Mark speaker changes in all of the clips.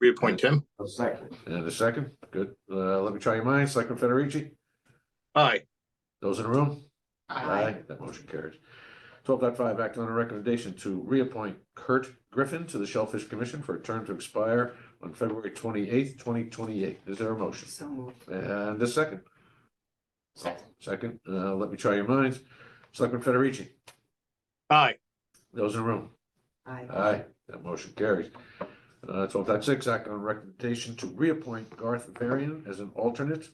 Speaker 1: Reappoint Tim.
Speaker 2: A second.
Speaker 3: And a second, good. Uh, let me try your minds. Selectman Federici,
Speaker 1: Aye.
Speaker 3: those in the room? That motion carries. 12.5 act on a recommendation to reappoint Kurt Griffin to the Shellfish Commission for a term to expire on February twenty-eighth, twenty twenty-eight. Is there a motion?
Speaker 4: So moved.
Speaker 3: And a second,
Speaker 4: Second.
Speaker 3: second, uh, let me try your minds. Selectman Federici,
Speaker 1: Aye.
Speaker 3: those in the room?
Speaker 4: Aye.
Speaker 3: Aye, that motion carries. Uh, twelve dot six, act on recommendation to reappoint Garth Varian as an alternate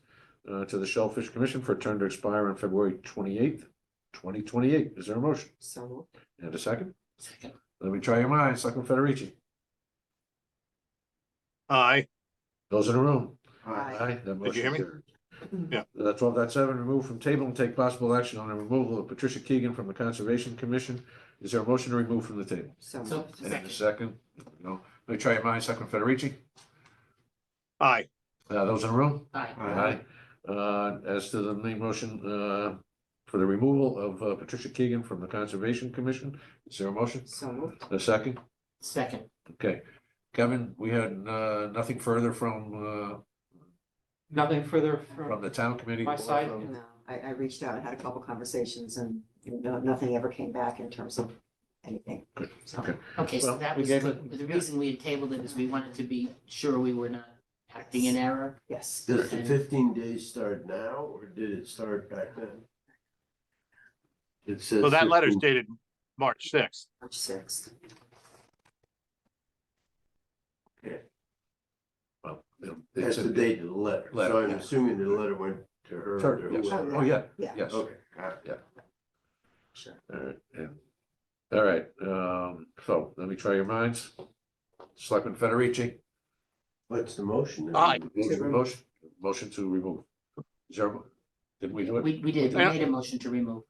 Speaker 3: uh, to the Shellfish Commission for a term to expire on February twenty-eighth, twenty twenty-eight. Is there a motion?
Speaker 4: So moved.
Speaker 3: And a second?
Speaker 4: Second.
Speaker 3: Let me try your minds, Selectman Federici.
Speaker 1: Aye.
Speaker 3: Those in the room?
Speaker 4: Aye.
Speaker 3: that
Speaker 1: Did you hear
Speaker 3: motion
Speaker 1: me?
Speaker 3: carries.
Speaker 1: Yeah.
Speaker 3: Uh, twelve dot seven, remove from table and take possible action on the removal of Patricia Keegan from the Conservation Commission. Is there a motion to remove from the table?
Speaker 4: So
Speaker 5: So-
Speaker 4: moved.
Speaker 3: And a second? No. Let me try your minds, Selectman Federici.
Speaker 1: Aye.
Speaker 3: Uh, those in the room?
Speaker 5: Aye.
Speaker 3: Aye. Uh, as to the main motion, uh, for the removal of uh, Patricia Keegan from the Conservation Commission, is there a motion?
Speaker 4: So moved.
Speaker 3: A second?
Speaker 5: Second,
Speaker 3: Okay. Kevin, we had, uh, nothing further from,
Speaker 5: nothing further
Speaker 3: uh,
Speaker 5: from,
Speaker 3: from the town committee?
Speaker 5: My
Speaker 3: or
Speaker 5: side.
Speaker 3: from-
Speaker 4: No, uh, I, I reached out and had a couple conversations and no, nothing ever came back in terms of anything. So-
Speaker 3: Okay.
Speaker 5: okay, so
Speaker 3: Well,
Speaker 5: that
Speaker 3: we
Speaker 5: was,
Speaker 3: gave
Speaker 5: the
Speaker 3: it-
Speaker 5: the reason we had tabled it is we wanted to be sure we were not acting in error.
Speaker 4: Yes.
Speaker 2: Does the fifteen days start now or did it start back then? It says.
Speaker 1: So that letter's
Speaker 2: 15
Speaker 1: dated March sixth.
Speaker 4: March sixth.
Speaker 3: Well, you know, it's
Speaker 2: That's the
Speaker 3: in-
Speaker 2: date of the letter. So
Speaker 3: Letter,
Speaker 2: I'm
Speaker 4: yeah.
Speaker 2: assuming the letter went to her. or
Speaker 3: Sure, yes.
Speaker 2: whoever.
Speaker 3: Oh, yeah,
Speaker 4: Yeah.
Speaker 3: yes.
Speaker 2: Okay. got it.
Speaker 3: All right, yeah. All right, um, so let me try your minds. Selectman Federici?
Speaker 2: What's the motion? then?
Speaker 1: Aye.
Speaker 3: Motion, motion to remove. Is there, did we do it?
Speaker 5: We, we did, we
Speaker 1: Yeah.
Speaker 5: made a motion to remove.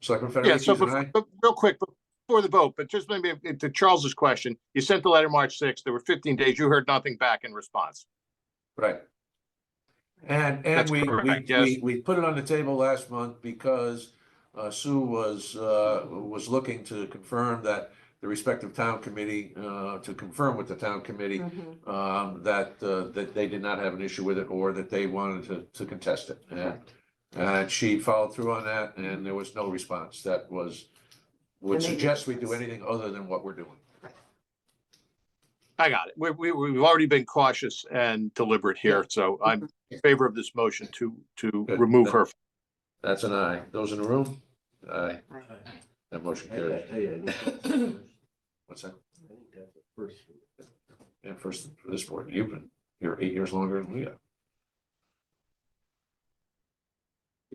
Speaker 3: Selectman
Speaker 1: Yeah, so,
Speaker 3: Federici, is an
Speaker 1: bef-
Speaker 3: aye?
Speaker 1: but real quick, before the vote, but just maybe to Charles's question, you sent the letter March sixth. There were fifteen days. You heard nothing back in response.
Speaker 3: Right. And, and
Speaker 1: That's
Speaker 3: we, we,
Speaker 1: correct, yes.
Speaker 3: we, we put it on the table last month because uh, Sue was, uh, was looking to confirm that the respective town committee, uh, to confirm with the town committee,
Speaker 4: Mhm.
Speaker 3: um, that, uh, that they did not have an issue with it or that they wanted to, to contest it. And,
Speaker 4: Correct.
Speaker 3: and she followed through on that and there was no response that was, would
Speaker 4: And they did-
Speaker 3: suggest we do anything other than what we're doing.
Speaker 1: I got it. We, we, we've already been cautious and deliberate here, so I'm in favor of this motion to, to
Speaker 3: Good.
Speaker 1: remove her.
Speaker 3: That's an aye. Those in the room? Aye.
Speaker 4: Aye.
Speaker 3: That motion
Speaker 2: I gotta
Speaker 3: carries.
Speaker 2: tell you, I think that's the first-
Speaker 3: What's that?
Speaker 2: I think that's the first one.
Speaker 3: And first, for this board, you've been here eight years longer than we have.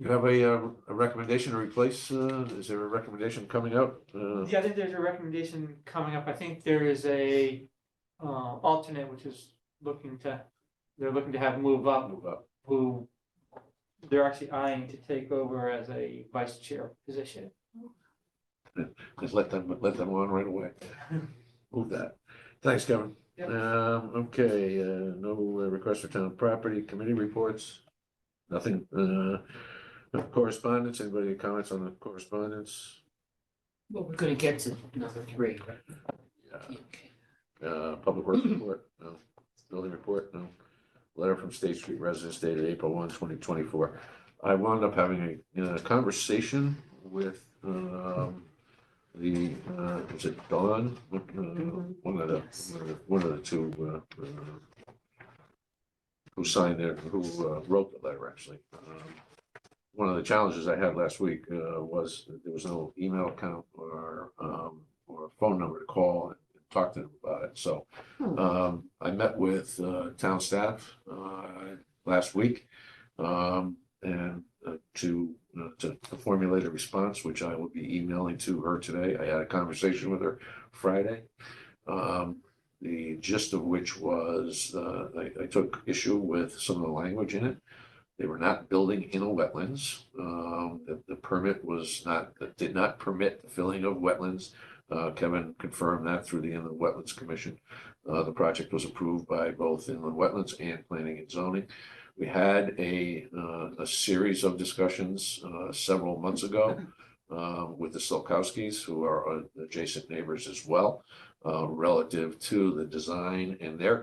Speaker 3: You have a, uh, a recommendation to replace, uh, is there a recommendation coming out? Uh,
Speaker 5: Yeah, I think there's a recommendation coming up. I think there is a uh alternate which is looking to, they're looking to have move up
Speaker 3: move up.
Speaker 5: who they're actually eyeing to take over as a vice chair position.
Speaker 3: Just let them, let them on right away. Move that. Thanks, Kevin.
Speaker 5: Yep.
Speaker 3: Um, okay, uh, no uh, request for town property committee reports. Nothing, uh, no correspondence. Anybody comments on the correspondence?
Speaker 5: Well, we're gonna get to number three.
Speaker 3: Yeah. Uh, public works report, no. Building report, no. Letter from State Street residents dated April 1, 2024. I wound up having a, uh, conversation with, um, the, uh, is it Dawn? Uh, One of the,
Speaker 4: Yes.
Speaker 3: one of the two, uh, uh, who signed it, who uh, wrote the letter, actually. Um, One of the challenges I had last week, uh, was that there was no email account or, um, or phone number to call and talk to them about it, so.
Speaker 4: Hmm.
Speaker 3: Um, I met with, uh, town staff, uh, last week. Um, and uh, to, uh, to to formulate a response, which I will be emailing to her today. I had a conversation with her Friday. Um, the gist of which was, uh, I, I took issue with some of the language in it. They were not building in a wetlands. Um, the, the permit was not, did not permit the filling of wetlands. Uh, Kevin confirmed that through the Inland Wetlands Commission. Uh, the project was approved by both Inland Wetlands and Planning and Zoning. We had a, uh, a series of discussions, uh, several months ago, uh, with the Solkowskis, who are uh, adjacent neighbors as well, uh, relative to the design and their